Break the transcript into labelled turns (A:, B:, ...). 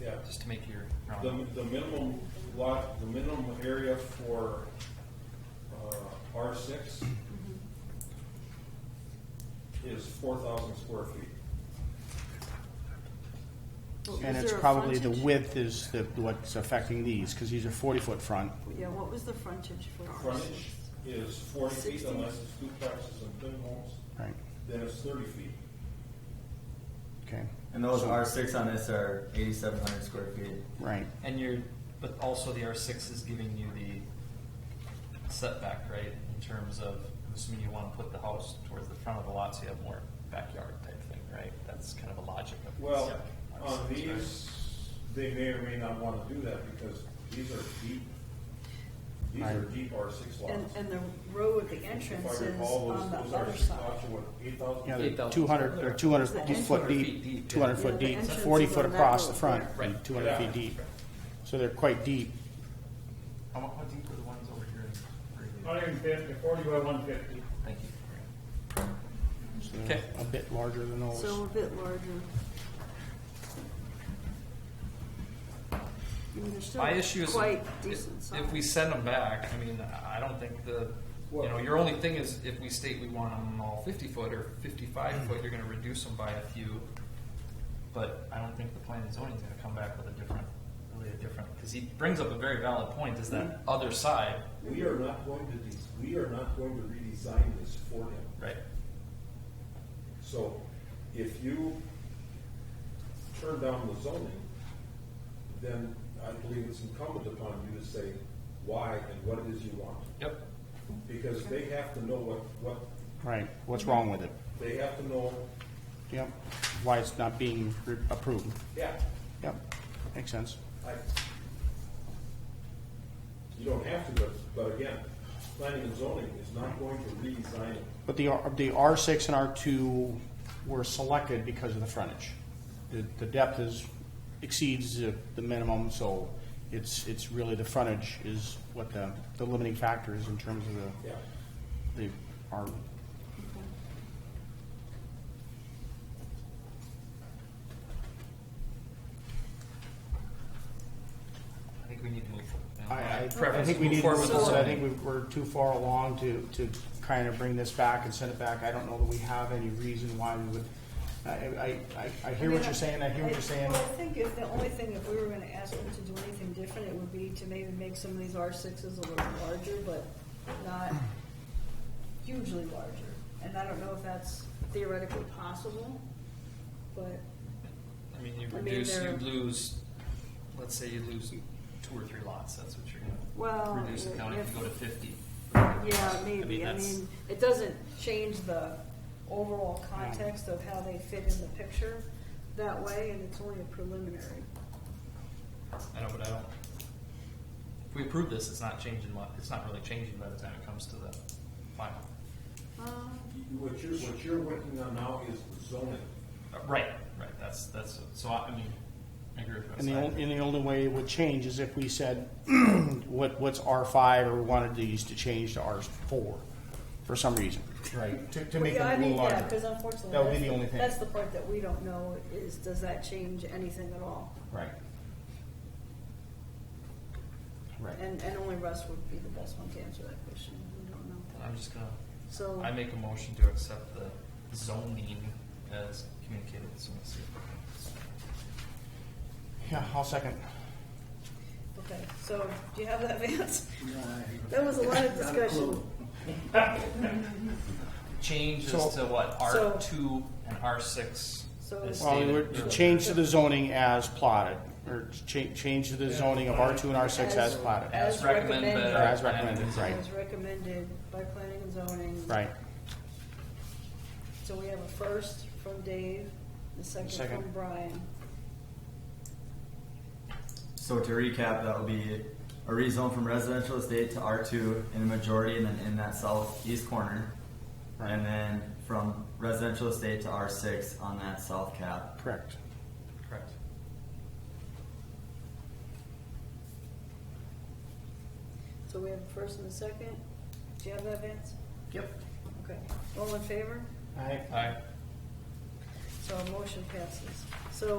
A: Yeah.
B: just to make your
A: The,
B: round.
A: the minimum lot, the minimum area for, uh, R six is four thousand square feet.
C: What
D: And
C: was
D: it's
C: their
D: probably the
C: frontage?
D: width is the, what's affecting these, because these are forty-foot front.
C: Yeah, what was the frontage for? ours?
A: Frontage is forty feet
C: 60.
A: unless it's duplexes and thin homes,
D: Right,
A: then it's thirty feet.
D: okay,
E: And those R six on this are eighty-seven hundred square feet.
D: right,
B: And you're, but also the R six is giving you the setback, right? In terms of, I'm assuming you wanna put the house towards the front of the lot so you have more backyard type thing, right? That's kind of a logic of.
A: Well,
B: Yeah.
A: on
B: R6, right?
A: these, they may or may not wanna do that because these are deep, these are
D: Right.
A: deep R six lots.
C: And, and the road, the entrance
A: If I
C: is
A: recall, those-
C: on the
A: those R
C: other
A: six
C: side.
A: lots are what, eight thousand?
D: yeah, they're
B: 8,000
D: two hundred, or two hundred
C: It's the
D: foot
C: entrance.
D: deep, two hundred
B: Yeah,
D: foot
C: the
D: deep,
C: entrance
D: forty
C: is
D: foot
C: on that
D: across the
C: road,
D: front,
C: yeah.
B: Right.
D: two hundred feet deep. So they're quite deep,
B: How, mu- how deep are the ones over here? in- where are
F: Hundred and fifty, forty by one fifty.
B: they? Thank you.
D: so they're
B: Okay.
D: a bit larger than those.
C: So a bit larger. I mean, they're still
B: My issue is
C: Quite
B: if-
C: decent size.
B: if we send them back, I mean, I don't think the, you know, your only thing is if we state we want them all fifty foot or fifty-five foot, you're gonna reduce them by a few. But I don't think the planning and zoning's gonna come back with a different, really a different, because he brings up a very valid point, is that
D: Mm-hmm.
B: other side,
A: We are not going to, des- we are not going to redesign this for him.
B: right?
A: So if you turn down the zoning, then I believe it's incumbent upon you to say why and what it is you want.
B: Yep,
A: Because they have to know what, what,
D: Right, what's wrong with it?
A: they have to know,
D: Yep, why it's not being re- approved,
A: yeah,
D: yep, makes sense.
A: I, you don't have to, but, but again, planning and zoning is not going to redesign it.
D: But the, R- the R six and R two were selected because of the frontage. The, the depth is, exceeds the, the minimum, so it's, it's really the frontage is what the, the limiting factor is in terms of
A: Yeah,
D: the, the, our,
B: I think we need to move. forward.
D: I, I, I
B: Preference
D: think we
B: move
D: need,
B: forward with the
D: so I
B: zoning.
D: think we- we're too far along to, to kind of bring this back and send it back. I don't know that we have any reason why we would, I, I, I, I hear what you're saying, I hear what you're saying.
C: Well, I think if the only thing, if we were gonna ask them to do anything different, it would be to maybe make some of these R sixes a little larger, but not hugely larger. And I don't know if that's theoretically possible, but,
B: I mean, you
C: I mean,
B: reduce, you
C: they're-
B: lose, let's say you lose two or three lots, that's what you're
C: Well,
B: gonna reduce the county if you go to
C: if-
B: fifty.
C: yeah, maybe, I
B: that's-
C: mean, it doesn't change the overall context of how they fit in the picture that way, and it's only a preliminary.
B: I know, but I don't. If we approve this, it's not changing, mu- it's not really changing by the time it comes to the final.
C: Um,
A: You- what you're, what you're working on now is zoning.
B: Uh, Right, right, that's, that's, so I, I mean, I agree with
D: And the,
B: that.
D: only, and the only way it would change is if we said, what, what's R five, or wanted these to change to R four, for some reason. Right. To, to make
C: Yeah, I
D: them a
C: mean,
D: little
C: yeah,
D: larger.
C: because unfortunately.
D: That would be
C: that's
D: the only thing.
C: That's the part that we don't know is, does that change anything at all?
D: Right. Right.
C: And, and only Russ would be the best one to answer that question. We don't know.
B: I'm just gonna,
C: So,
B: I make a motion to accept the zoning as communicated with someone.
D: Yeah, I'll second.
C: okay, so do you have that, Vance? That was a lot of discussion.
B: Changes
D: So-
B: to what,
C: So-
B: R two and R six
C: So-
B: is
D: Well,
B: stated.
D: we would change to the zoning as plotted, or cha- change to the zoning of R two and R six as plotted.
B: As recommended. by-
D: Or as recommended,
B: and-
D: right.
C: As recommended by planning and zoning.
D: Right,
C: So we have a first from Dave, the second
D: Second.
C: from Brian.
E: So to recap, that will be a rezone from residential estate to R two in the majority and then in that southeast corner.
D: Right.
E: And then from residential estate to R six on that south cap.
D: correct.
B: Correct.
C: So we have a first and a second. Do you have that, Vance?
D: Yep.
C: Okay. All in favor?
D: All right.
B: Aye.
C: So our motion passes. So